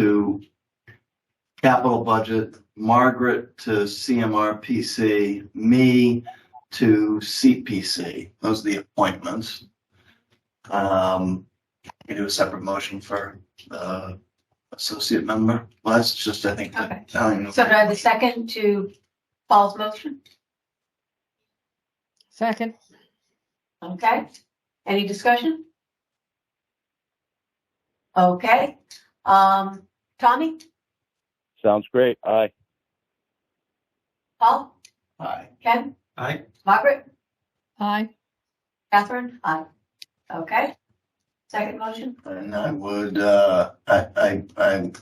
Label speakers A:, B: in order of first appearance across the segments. A: to capital budget, Margaret to CMRPC, me to CPC. Those are the appointments. Um, we do a separate motion for, uh, associate member. Well, that's just, I think.
B: Okay.
A: I don't even know.
B: So do I have a second to Paul's motion?
C: Second.
B: Okay. Any discussion? Okay. Um, Tommy,
D: Sounds great. Aye.
B: Paul,
A: Aye.
B: Ken,
E: Aye.
B: Margaret,
C: Aye.
B: Catherine, I. Okay. Second motion?
A: And I would, uh, I, I, I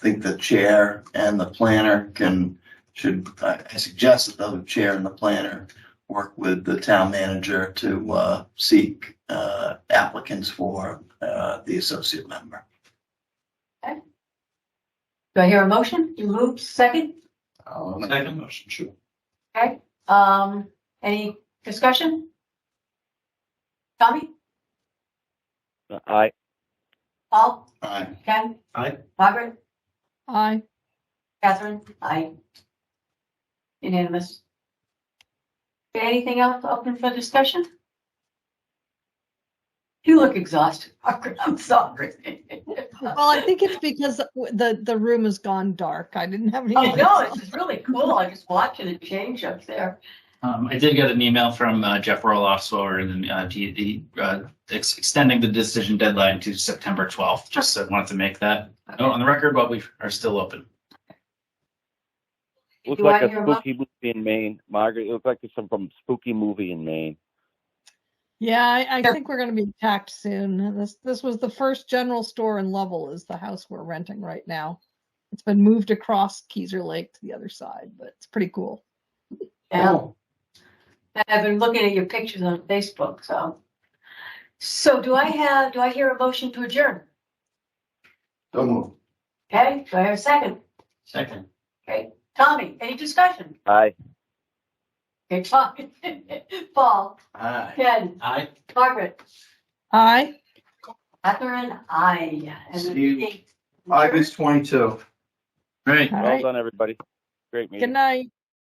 A: think the chair and the planner can, should, I I suggest that the chair and the planner work with the town manager to, uh, seek, uh, applicants for, uh, the associate member.
B: Do I hear a motion? You moved second?
A: I'll make
E: Second.
A: the motion, sure.
B: Okay. Um, any discussion? Tommy,
D: Aye.
B: Paul,
A: Aye.
B: Ken,
E: Aye.
B: Margaret,
C: Aye.
B: Catherine, aye. Unanimous. Okay, Anything else open for discussion? You look exhausted, Margaret, I'm sorry.
C: Well, I think it's because the, the room has gone dark. I didn't have any.
B: Oh, no,
C: lights
B: it's just really cool, I'm just watching it change up there.
F: Um, I did get an email from uh, Jeff Roloff, so and uh, he, he, uh, ex- extending the decision deadline to September 12th. Just uh, wanted to make that note on the record, but we are still open.
D: Looks
B: Do
D: like
B: I
D: a
B: hear a mo-
D: spooky movie in Maine. Margaret, it looks like there's some from spooky movie in Maine.
C: Yeah, I, I think we're gonna be attacked soon. This, this was the first general store in Lovell is the house we're renting right now. It's been moved across Keezer Lake to the other side, but it's pretty cool.
B: Yeah. I've been looking at your pictures on Facebook, so. So do I have, do I hear a motion to adjourn?
A: Don't move.
B: Okay, do I have a second?
F: Second.
B: Okay, Tommy, any discussion?
D: Aye.
B: Okay, Tommy, Paul,
A: Aye.
B: Ken,
F: Aye.
B: Margaret,
C: Aye.
B: Catherine, I. And the
A: See you.
B: meeting.
E: August twenty-two.
F: All right.
C: All
D: Well
C: right.
D: done, everybody. Great meeting.
C: Good night.